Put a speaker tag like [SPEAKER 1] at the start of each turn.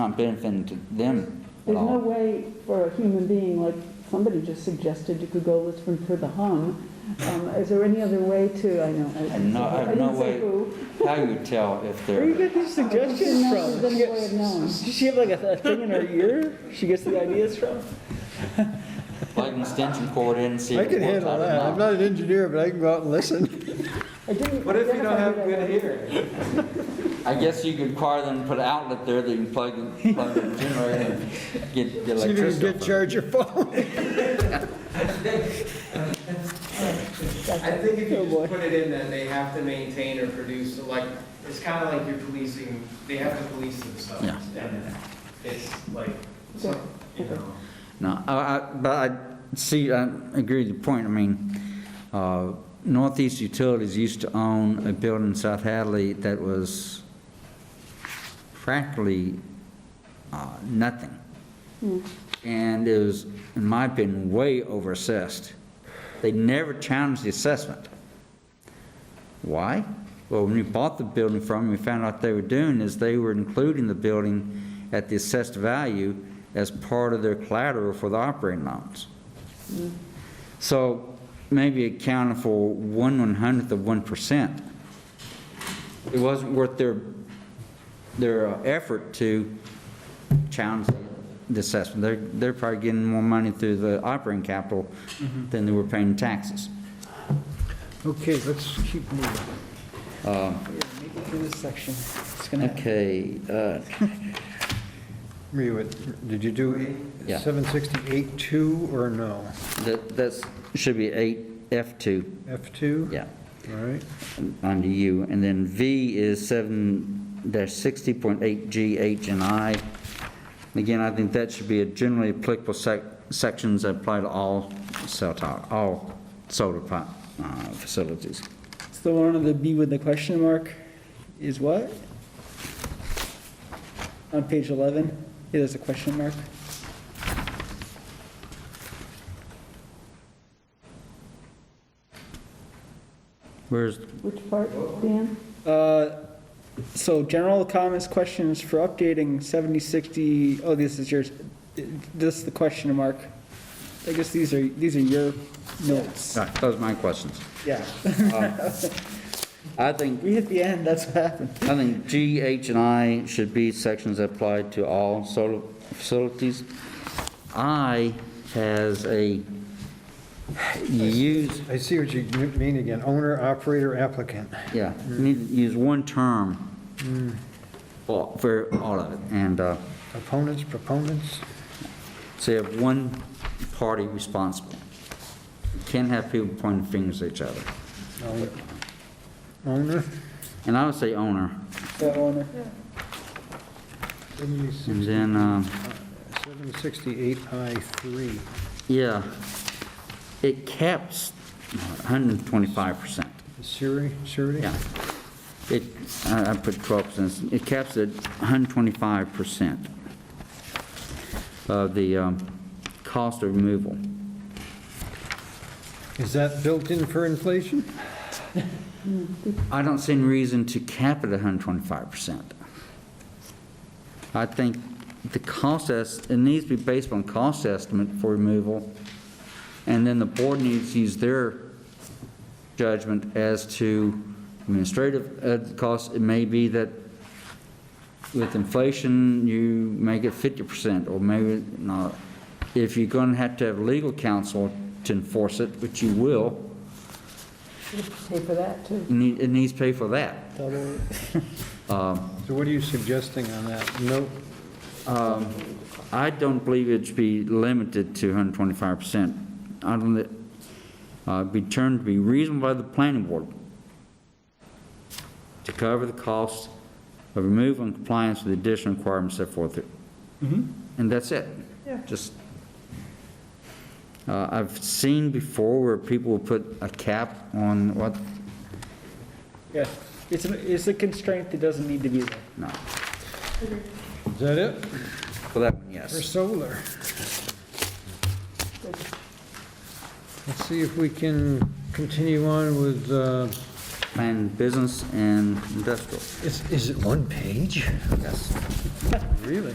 [SPEAKER 1] not benefiting to them at
[SPEAKER 2] There's no
[SPEAKER 1] all.
[SPEAKER 2] way for a human being, like somebody just suggested you could go listen for the hum. Um, Is there any other way to, I know. I-
[SPEAKER 1] have no- I have no
[SPEAKER 2] didn't say
[SPEAKER 1] way-
[SPEAKER 2] who.
[SPEAKER 1] How you tell if
[SPEAKER 3] Where you
[SPEAKER 1] they're,
[SPEAKER 3] get these suggestions
[SPEAKER 2] No,
[SPEAKER 3] from?
[SPEAKER 2] there's no way of knowing.
[SPEAKER 3] Does she have like a a thing in her ear she gets the ideas from?
[SPEAKER 1] like an extension cord in, see
[SPEAKER 4] I
[SPEAKER 1] if it
[SPEAKER 4] can
[SPEAKER 1] works
[SPEAKER 4] handle
[SPEAKER 1] out
[SPEAKER 4] that. I'm
[SPEAKER 1] or not.
[SPEAKER 4] not an engineer, but I can go out and listen.
[SPEAKER 2] I didn't
[SPEAKER 5] What if you don't
[SPEAKER 2] identify
[SPEAKER 5] have
[SPEAKER 2] who that
[SPEAKER 5] good
[SPEAKER 2] was.
[SPEAKER 5] hearing?
[SPEAKER 1] I guess you could require them to put an outlet there that you can plug, in- plug in the generator and get get
[SPEAKER 4] See if you can
[SPEAKER 1] electricity.
[SPEAKER 4] get charge your phone.
[SPEAKER 5] I think if you just put it in that they have to maintain or produce, like, it's kind of like you're policing, they have to police themselves.
[SPEAKER 1] Yeah.
[SPEAKER 5] And It's like, so- you know.
[SPEAKER 1] No, I, I- but I, see, I agree with your point. I mean, uh, Northeast Utilities used to own a building in South Hadley that was practically uh, nothing. And it was, in my opinion, way over assessed. They never challenged the assessment. Why? Well, when we bought the building from them, we found out they were doing is they were including the building at the assessed value as part of their collateral for the operating loans.
[SPEAKER 3] Mm-hmm.
[SPEAKER 1] So maybe accounting for one one hundredth of one percent. It wasn't worth their, their uh, effort to challenge the assessment. They're, they're probably getting more money through the operating capital
[SPEAKER 3] Mm-hmm.
[SPEAKER 1] than they were paying in taxes.
[SPEAKER 4] Okay, let's keep moving.
[SPEAKER 3] Make it through this section. It's gonna,
[SPEAKER 1] Okay, uh,
[SPEAKER 4] Were you at, did you do
[SPEAKER 1] Yeah.
[SPEAKER 4] 768-2 or no?
[SPEAKER 1] That, that's, should be eight, F2,
[SPEAKER 4] F2?
[SPEAKER 1] yeah,
[SPEAKER 4] All right.
[SPEAKER 1] under U. And then V is seven dash sixty point eight G, H, and I. Again, I think that should be a generally applicable sec, sections that apply to all cell tower, all solar plant, uh, facilities.
[SPEAKER 3] it's the one of the B with the question mark is what? On page 11, it is a question mark.
[SPEAKER 1] Where's,
[SPEAKER 2] Which part, Dan?
[SPEAKER 3] Uh, So general comments, questions for updating 7060, oh, this is yours. This is the question mark. I guess these are, these are your notes.
[SPEAKER 1] ah, those are my questions.
[SPEAKER 3] Yeah,
[SPEAKER 1] I think,
[SPEAKER 3] we hit the end, that's what happened.
[SPEAKER 1] I think G, H, and I should be sections that apply to all solar facilities. I has a use.
[SPEAKER 4] I see what you mean again, owner, operator, applicant.
[SPEAKER 1] Yeah, you need to use one term for for all of it. And uh,
[SPEAKER 4] Opponents, proponents?
[SPEAKER 1] so you have one party responsible. Can't have people pointing fingers at each other.
[SPEAKER 4] No. Owner?
[SPEAKER 1] And I would say owner.
[SPEAKER 3] The owner.
[SPEAKER 1] And then, um,
[SPEAKER 4] 768I3.
[SPEAKER 1] yeah, it caps 125%.
[SPEAKER 4] Siri, Siri?
[SPEAKER 1] Yeah. It, I I put 12%. It caps at 125% of the um, cost of removal.
[SPEAKER 4] Is that built in for inflation?
[SPEAKER 1] I don't see any reason to cap it 125%. I think the cost, es- it needs to be based on cost estimate for removal, and then the board needs to use their judgment as to administrative uh, costs. It may be that with inflation, you make it 50%, or maybe not. If you're going to have to have legal counsel to enforce it, which you will,
[SPEAKER 2] Pay for that, too.
[SPEAKER 1] you need- it needs to pay for that.
[SPEAKER 4] So what are you suggesting on that? No,
[SPEAKER 1] I don't believe it should be limited to 125%. I don't, li- uh, be turned to be reasonable by the planning board to cover the cost of removal and compliance with additional requirements set forth. here. And that's it. Yeah. Just, uh, I've seen before where people will put a cap on what,
[SPEAKER 3] Yeah, it's, an- it's a constraint that doesn't need to be there.
[SPEAKER 1] no,
[SPEAKER 4] is that it?
[SPEAKER 1] for that one, yes.
[SPEAKER 4] For solar? Let's see if we can continue on with, uh,
[SPEAKER 1] Plan business and industrial,
[SPEAKER 4] is is it one page?
[SPEAKER 1] yes.
[SPEAKER 4] Really?